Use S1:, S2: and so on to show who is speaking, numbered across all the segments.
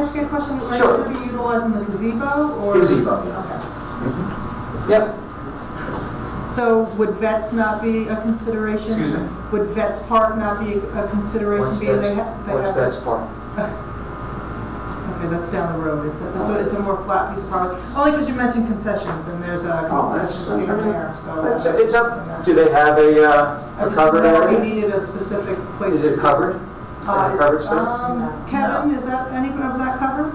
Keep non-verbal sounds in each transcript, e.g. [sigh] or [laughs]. S1: ask you a question? Are you
S2: Sure.
S1: going to be utilizing the gazebo or?
S2: Gazebo, yeah.
S1: Okay.
S2: Yep.
S1: So would vets not be a consideration?
S2: Excuse me?
S1: Would vets park not be a consideration?
S2: What's
S1: being
S2: that's,
S1: they ha- they
S2: what's
S1: have-
S2: that's part?
S1: Okay, that's down the road. It's a, it's a- it's a
S2: Uh,
S1: more flat piece of property. Only because you mentioned concessions and there's uh, a
S2: Oh, that's-
S1: concession stand
S2: I mean,
S1: there, so.
S2: It's, it's up, do they have a, uh, a covered
S1: We
S2: area?
S1: needed a specific place.
S2: Is it covered?
S1: Uh,
S2: Like a covered space?
S1: um, Kevin, is that, any of that covered?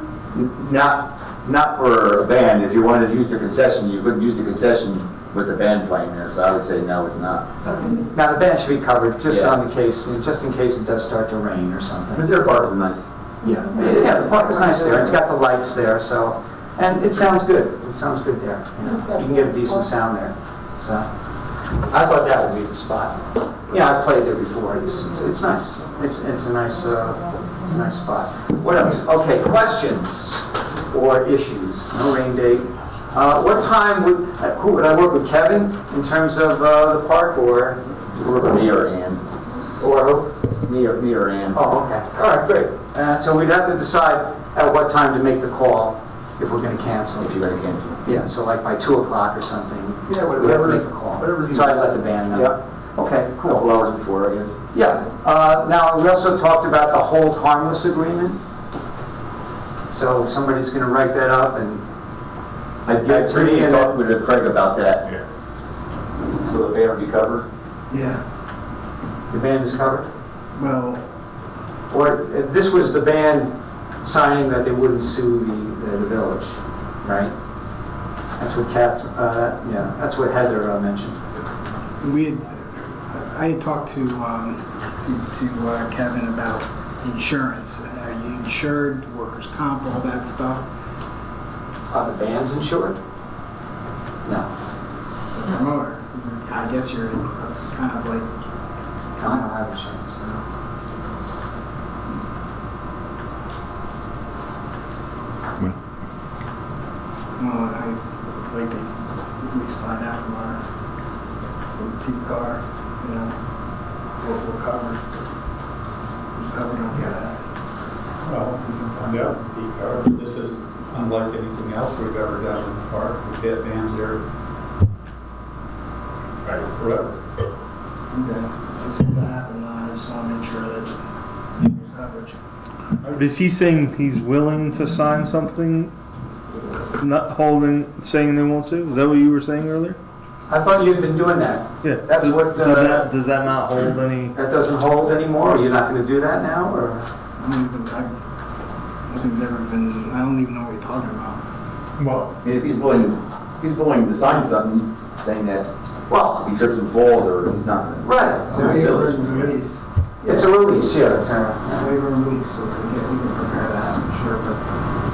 S3: Not, not for a band, if you wanted to use the concession, you couldn't use the concession with the band playing there, so I would say no, it's not.
S1: [laughs] Okay.
S2: Now, the bench should be covered, just
S3: Yeah.
S2: on the case, you know, just in case it does start to rain or something.
S3: Missouri Park is nice.
S2: Yeah, yeah, the park is nice there, it's got the lights there, so, and it sounds good, it sounds good there. you know. You can get a decent sound there, so. I thought that would be the spot. Yeah, I've played there before, it's, it's- it's nice, it's, it's a nice, uh, it's a nice spot. What else? Okay, questions or issues, no rain date. Uh, what time would, uh, who, would I work with Kevin in terms of, uh, the park or,
S3: Me or Ann,
S2: or who?
S3: me or, me or Ann.
S2: Oh, okay, all right, great. Uh, So we'd have to decide at what time to make the call if we're gonna cancel.
S3: If you're gonna cancel.
S2: Yeah, so like by 2 o'clock or something.
S3: Yeah,
S2: We have to
S3: whatever-
S2: make a call.
S3: whatever's
S2: So I let the band know.
S3: Yeah.
S2: Okay,
S3: A Couple
S2: cool.
S3: hours before, I guess.
S2: Yeah, uh, now, we also talked about the hold harmless agreement. So somebody's gonna write that up and,
S3: I
S2: Yeah,
S3: did pretty
S2: and-
S3: talk with Craig about that. So the band would be covered?
S4: Yeah,
S2: the band is covered?
S4: well,
S2: Or, uh, this was the band signing that they wouldn't sue the, the- the village, right? That's what Kath, uh, yeah, that's what Heather uh, mentioned.
S4: we had, I had talked to, um, to to uh, Kevin about insurance. Are you insured, workers' comp, all that stuff,
S2: Are the bands insured? No.
S4: the promoter? I guess you're kind of like,
S2: I don't have insurance, no.
S4: well, I, like, they- we find out from our, from Pete Carr, you know, what we're covered. We're covered on that.
S5: Well, yeah, the car, this is unlike anything else we've ever done in the park. We've had bands there forever.
S4: Okay. Let's see what happens. I just want to make sure that there's coverage.
S6: Is he saying he's willing to sign something, not holding, saying they won't sue? Is that what you were saying earlier?
S2: I thought you'd been doing that.
S6: Yeah.
S2: That's
S6: Does-
S2: what,
S6: Does
S2: uh,
S6: that, does that not hold any?
S2: That doesn't hold anymore, you're not gonna do that now, or?
S4: I don't even, I, nothing's ever been, I don't even know what you're talking about.
S5: Well,
S3: I mean, if he's willing, if he's willing to sign something, saying that
S2: Well,
S3: he trips and falls or he's not. gonna-
S2: right,
S3: So we
S4: Waiver
S3: village-
S4: and release,
S2: it's a release, yeah, it's a-
S4: waiver and release, so we can, we can prepare that, I'm sure, but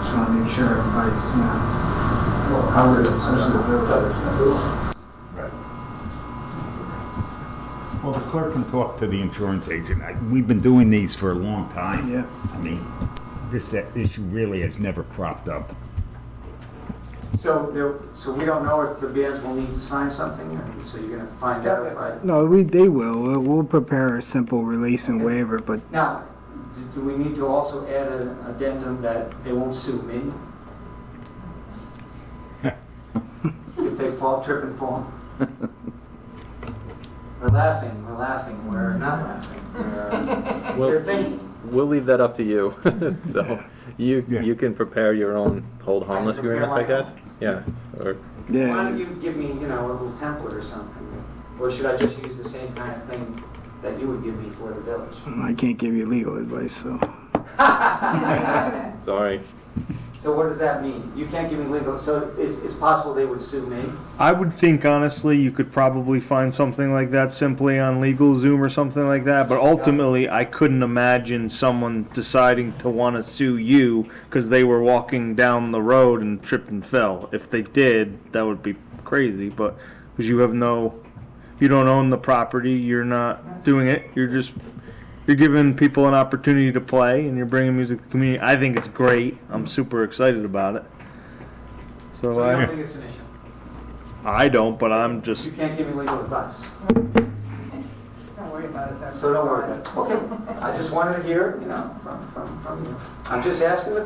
S4: just want to make sure everybody's, you know, well covered, especially the village.
S7: Right. Well, the clerk can talk to the insurance agent. I- We've been doing these for a long time.
S4: Yeah.
S7: I mean, this uh, issue really has never cropped up.
S2: So, there- so we don't know if the bands will need to sign something, or- so you're gonna find out if I...
S4: No, we, they will, we'll prepare a simple release and waiver, but
S2: Now, d- do we need to also add an addendum that they won't sue me? If they fall, trip and fall? We're laughing, we're laughing, we're not laughing, we're,
S8: Well-
S2: we're thinking.
S8: We'll leave that up to you. [laughs] so you
S7: Yeah.
S8: you can prepare your own hold harmless
S2: prepare
S8: agreements, I
S2: my
S8: guess. Yeah. Or
S2: Why don't you give me, you know, a little template or something? Or should I just use the same kind of thing that you would give me for the village?
S4: I can't give you legal advice, so.
S8: sorry.
S2: So what does that mean? You can't give me legal, so it's, it's possible they would sue me?
S6: I would think honestly, you could probably find something like that simply on LegalZoom or something like that. But ultimately, I couldn't imagine someone deciding to want to sue you because they were walking down the road and tripped and fell. If they did, that would be crazy. But because you have no, you don't own the property, you're not doing it. You're just you're giving people an opportunity to play and you're bringing music to the community. I think it's great. I'm super excited about it.
S2: So
S6: So,
S2: you
S6: I.
S2: don't think it's an issue?
S6: I don't, but I'm just.
S2: You can't give me legal advice,
S9: Don't worry about it, though.
S2: so don't worry about it. Okay, I just wanted to hear, it, you know, from, from, from you. I'm just asking the